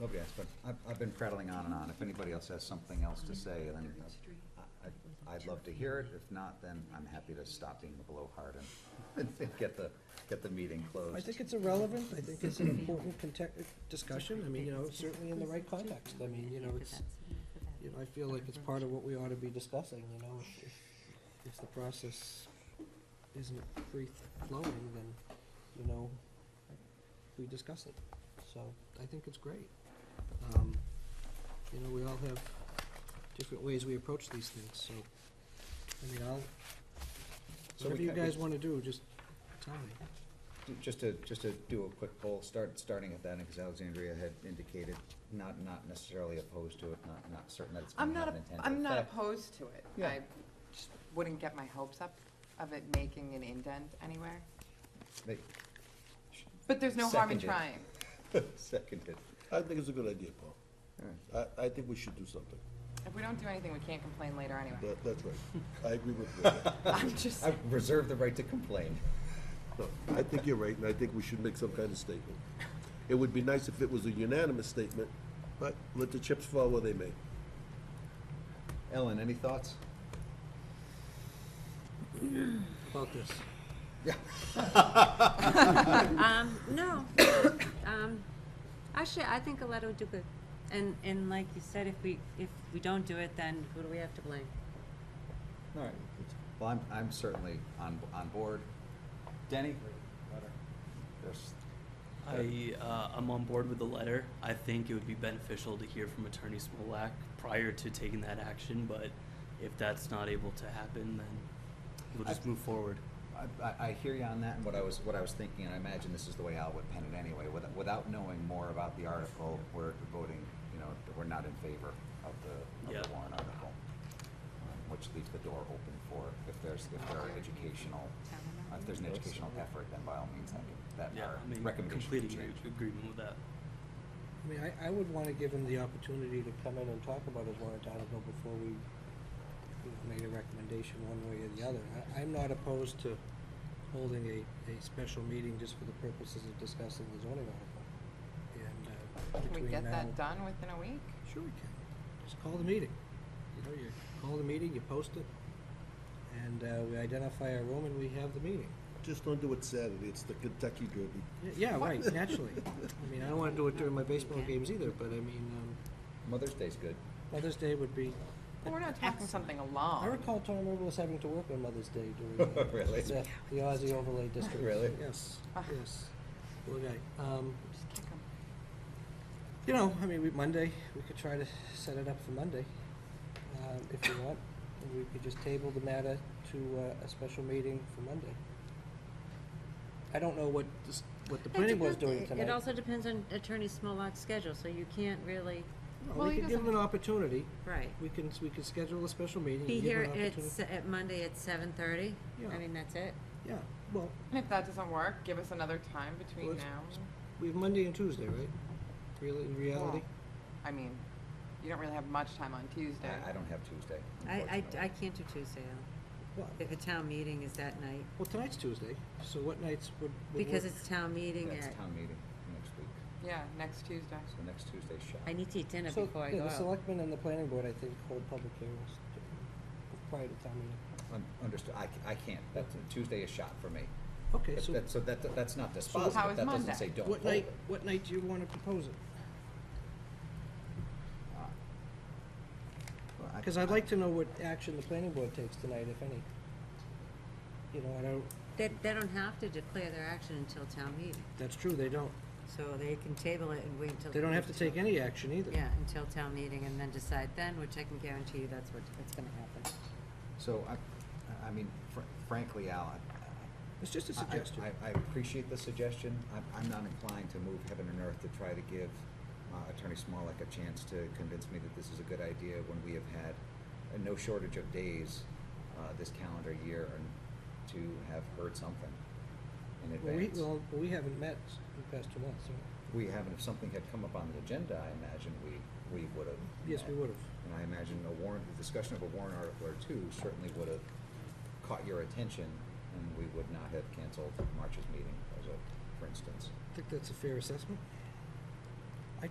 Nobody asked, but I've, I've been prattling on and on. If anybody else has something else to say, then I- I- I'd love to hear it. If not, then I'm happy to stop being a blowhard and get the, get the meeting I closed. think it's irrelevant, I think it's an important context, discussion, I mean, you know, certainly in the right context, I mean, you know, it's, you know, I feel like it's part of what we ought to be discussing, you know, if, if, if the process isn't free flowing, then, you know, we discuss it, so I think it's great. Um, you know, we all have different ways we approach these things, so, I mean, I'll, So we whatever you can't- we- guys wanna do, just tell me. Just to, just to do a quick poll, start, starting at that, because Alexandria had indicated not, not necessarily opposed to it, not, not certain that it's I'm going to not, have op- an intended I'm not effect. opposed to it. Yeah. I just wouldn't get my hopes up of it making an indent anywhere. They But there's no harm in Seconded. trying. Seconded. I think it's a good idea, Paul. All right. I, I think we should do something. If we don't do anything, we can't complain later anyway. That, that's right. I agree with you. I'm just, I reserve the right to complain. No, I think you're right, and I think we should make some kind of statement. It would be nice if it was a unanimous statement, but let the chips fall where they may. Ellen, any thoughts? about this. Um, no. Um, actually, I think a letter would do good. And, and like you said, if we, if we don't do it, then who do we have to blame? All right. Well, I'm, I'm certainly on, on board. Denny? Yes. I, uh, I'm on board with the letter. I think it would be beneficial to hear from Attorney Smolak prior to taking that action, but if that's not able to happen, then we'll just I- move forward. I, I, I hear you on that, and what I was, what I was thinking, and I imagine this is the way Al would pen it anyway, without, without knowing more about the article, we're voting, you know, that we're not in favor of the, of the Yeah. warrant article. um, Which leaves the door open for, if there's, if there are educational, if there's an educational effort, then by all means, I can, that Yeah, our I mean, recommendation complete should agree- change. agreement with that. I mean, I, I would wanna give him the opportunity to come in and talk about his warrant article before we you know, made a recommendation one way or the other. I, I'm not opposed to holding a, a special meeting just for the purposes of discussing the zoning article. And, uh, can we between get now- that done within a week? Sure we can. Just call the meeting. You know, you call the meeting, you post it, and, uh, we identify our room and we have the meeting. Just don't do it Saturday, it's the Kentucky Derby. Y- Yeah, right, naturally. I mean, I don't wanna do it during my baseball games either, but I mean, um, Mother's Day's good. Mother's Day would be, Well, we're not talking something I long. recall Tom River was having to work on Mother's Day during the- Oh. Really? the the Aussie overlay district. Really? Yes, Ah. yes. Poor guy. Um, Just kick 'em. you know, I mean, we, Monday, we could try to set it up for Monday, um, if you want. And we could just table the matter to, uh, a special meeting for Monday. I don't know what, this- what the planning board's doing tonight. It also depends on Attorney Smolak's schedule, so you can't really, No, Well, We he could give them an opportunity. right. We can, we can schedule a special meeting. and Be give 'em here an at, opportunity. se- at Monday at seven thirty. Yeah. I mean, that's it. Yeah, well, And if that doesn't work, give us another time between Let's- now. and- we have Monday and Tuesday, right? Really, in reality? I mean, you don't really have much time on Tuesday. I, I don't have Tuesday, I, unfortunately. I, I can't do Tuesday, Al. Well, If a town meeting is that night, Well, tonight's Tuesday, so what nights would, would because work? it's town meeting That's at, town meeting next week, Yeah, next Tuesday. so next Tuesday's shot. I need to eat dinner So, before I yeah, go The out. selectmen and the planning board, I think, hold public hearings to- prior to town meeting. Un- Understood, I, c- I can't, that's, Tuesday is shot for me. Okay, That- so that- So that, that's not How dispositive, is that doesn't Monday? say don't what hold night, it. what night do you wanna propose it? Well, I- uh, Cause I'd like to know what action the planning board takes tonight, if any. You know, I don't, They, they don't have to declare their action until town meeting, that's true, they don't, so they can table it and wait until. they don't have to take any action either. Yeah, until town meeting and then decide then, which I can guarantee you that's what, that's gonna happen. So I, I mean, fr- frankly, Al, I- It's just a I- suggestion. I, I appreciate the suggestion. I'm, I'm not inclined to move heaven and earth to try to give uh, Attorney Smolak a chance to convince me that this is a good idea when we have had uh, no shortage of days uh, this calendar year and to have heard something in Well, we, advance. well, we haven't met s- in the past two months, right? We haven't, if something had come up on the agenda, I imagine we, we would have. Yes, we would've. And I imagine a warrant, the discussion of a warrant article or two certainly would have caught your attention, and we would not have canceled March's meeting, as a, for instance. I think that's a fair assessment.